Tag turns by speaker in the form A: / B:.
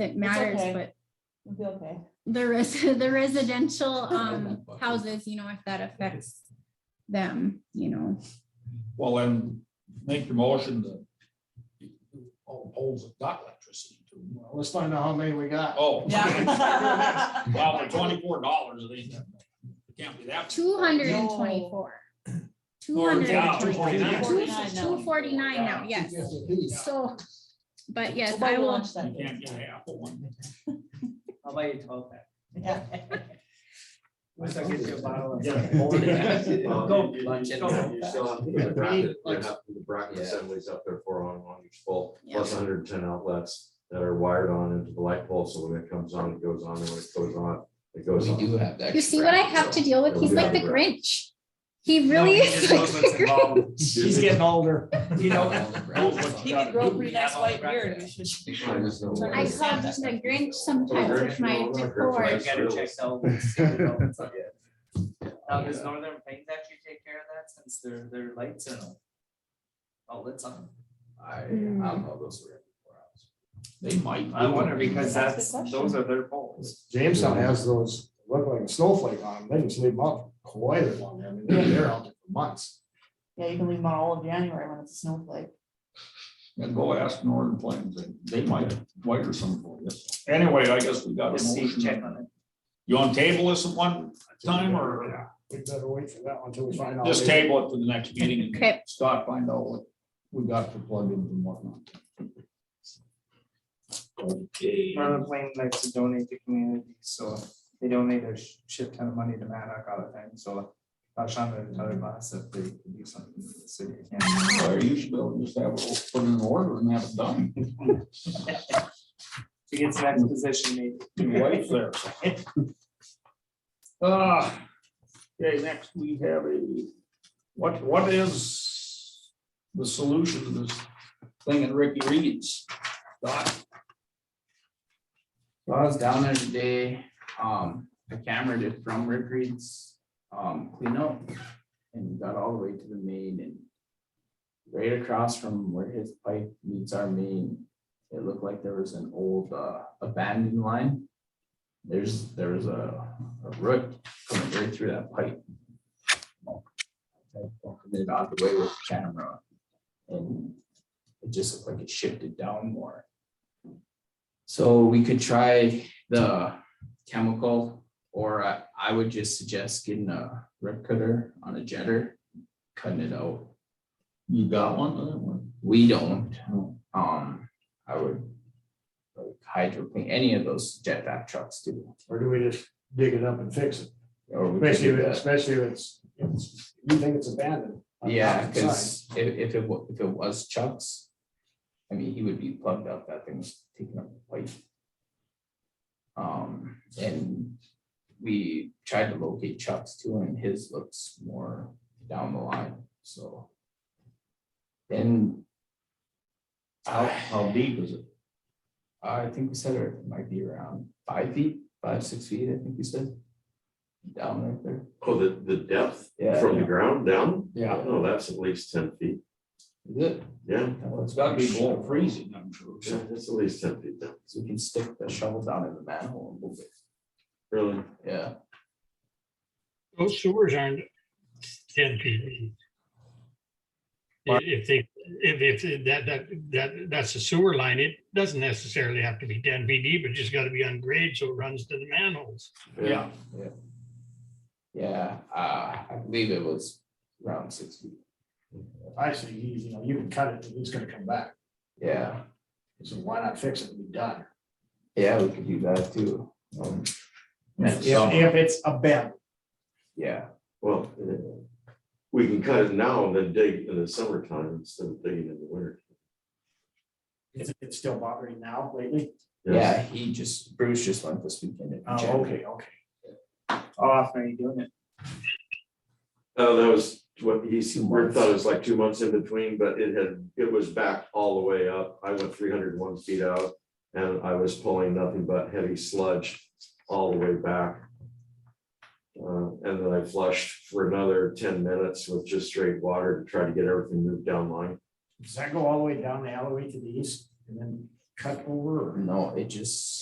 A: that matters,
B: okay.
A: but
B: We'll be okay.
A: the res- the residential, um, houses, you know, if that affects them, you know.
C: Well, then make the motion that all poles have got electricity to them.
D: Well, Let's find out how many we got.
C: Oh.
B: Yeah.
C: Well, for twenty-four dollars, it ain't that much. It can't be that. much.
A: Two hundred and twenty-four. Two hundred
C: yeah,
A: and twenty-four.
C: 249.
A: Two forty-nine now, yes.
D: Yes, it is.
A: So, but yes,
B: We'll
A: I will,
B: launch
C: You
B: that
C: can't
B: thing.
C: get half of one.
E: I'll buy you twelve pack.
B: Yeah.
D: Once I get you a bottle of-
C: Yeah.
E: Go.
F: Lunch and
E: Go.
F: you still have to do the bracket, you
D: Like-
F: have to do the bracket
E: Yeah.
F: assemblies up there for on one each pole,
A: Yeah.
F: plus hundred and ten outlets that are wired on into the light pole, so when it comes on, it goes on, and when it goes on, it goes
E: We do
F: on.
E: have that.
A: you see what I have to deal with? He's like the Grinch. He really
D: No, he just
A: is like
D: knows what's
A: the Grinch.
D: involved. He's getting older.
E: You
B: He can grow a pretty nice white beard. We should-
F: I just know what
A: I
F: it is.
A: call him the Grinch sometimes with my
F: Oh, Grinch, no, not Grinch,
A: decor.
F: right?
E: gotta check out. Now, does Northern Pines actually take care of that since their, their lights are all outlets on?
F: I, I don't
A: Mm.
F: know those were.
C: They might.
E: I wonder because
B: That's the
E: that's,
B: question.
E: those are their poles.
D: Jamestown has those, look like a snowflake on them, they just leave them up quite a long, I mean, they're they're out there for months.
B: Yeah, you can leave them on all of January when it's a snowflake.
C: And go ask Northern Plains, they- they might wire some for you. Anyway, I guess we got a
E: Just see, check
C: motion.
E: on it.
C: You on table this at one time or
D: We better wait for that one until we find out.
C: just table it for the next meeting and
A: Okay.
C: start find out what we got for plugins and whatnot. Okay.
G: Northern Plain likes to donate to communities, so they donate a sh- shit ton of money to Maddox all the time, so. I was trying to tell their boss if they could do something for the city. again.
C: Or you should be able to just have it put in order and have it done.
G: To get to that position, maybe.
C: Your wife's there. Ah, okay, next we have a, what, what is the solution to this thing in Ricky Reed's? Doc,
H: Well, I was down there today, um, I cameraed it from Rick Reed's, um, cleanup and got all the way to the main and right across from where his pipe meets our main, it looked like there was an old, uh, abandoned line. There's, there was a, a root coming right through that pipe. I opened It out of the way with the camera and it just looked like it shifted down more. So we could try the chemical, or I, I would just suggest getting a rip cutter on a jetter, cutting it out.
C: you got one, other one?
H: We don't,
C: No.
H: um, I would like hydroplane, any of those jetback trucks do.
D: Or do we just dig it up and fix it?
H: or we could
D: Especially,
H: do
D: if-
H: that.
D: especially if it's, if it's- you think it's abandoned. on the
H: Yeah,
D: opposite side.
H: because if, if it, wa- if it was Chuck's, I mean, he would be plugged up, that thing was taking up light. Um, and we tried to locate Chuck's too, and his looks more down the line, so. Then.
C: How,
H: I,
C: how deep is it?
H: I think we said it might be around five feet, five, six feet, I think you said. Down right there,
F: Oh, the, the depth
H: Yeah.
F: from the ground down?
D: Yeah.
F: No, Oh, that's at least ten feet,
H: is it?
F: yeah,
C: It's gotta be below freezing, I'm sure.
F: yeah, that's at least ten feet down,
H: So we can stick the shovel down in the manhole and move it,
F: really.
H: yeah.
I: Those sewers aren't ten feet deep. If if they, if, if that, that, that, that's a sewer line, it doesn't necessarily have to be ten feet deep, it just gotta be on grade, so it runs to the manholes.
C: Yeah,
H: Yeah, uh, I believe it was around six feet.
D: I see, you you know, you can cut it, it's gonna come back,
H: Yeah,
D: so why not fix it and be done?
H: yeah, we could do that too. Um,
D: If,
H: so-
D: if it's abandoned.
H: Yeah,
F: Well, uh, we can cut it now and then dig in the summertime instead of digging in the winter.
D: It's, it's still bothering now lately?
H: yeah, he just, Bruce just went this weekend. and checked.
D: Oh, okay, okay.
G: How often are you doing it?
F: Oh, that was what he, s-
H: Two
F: Rick
H: months.
F: thought it was like two months in between, but it had, it was back all the way up. I went three hundred one feet out. And I was pulling nothing but heavy sludge all the way back. Uh, and then I flushed for another ten minutes with just straight water to try to get everything moved down line.
D: Does that go all the way down the alleyway to the east and then cut over or?
H: No, it just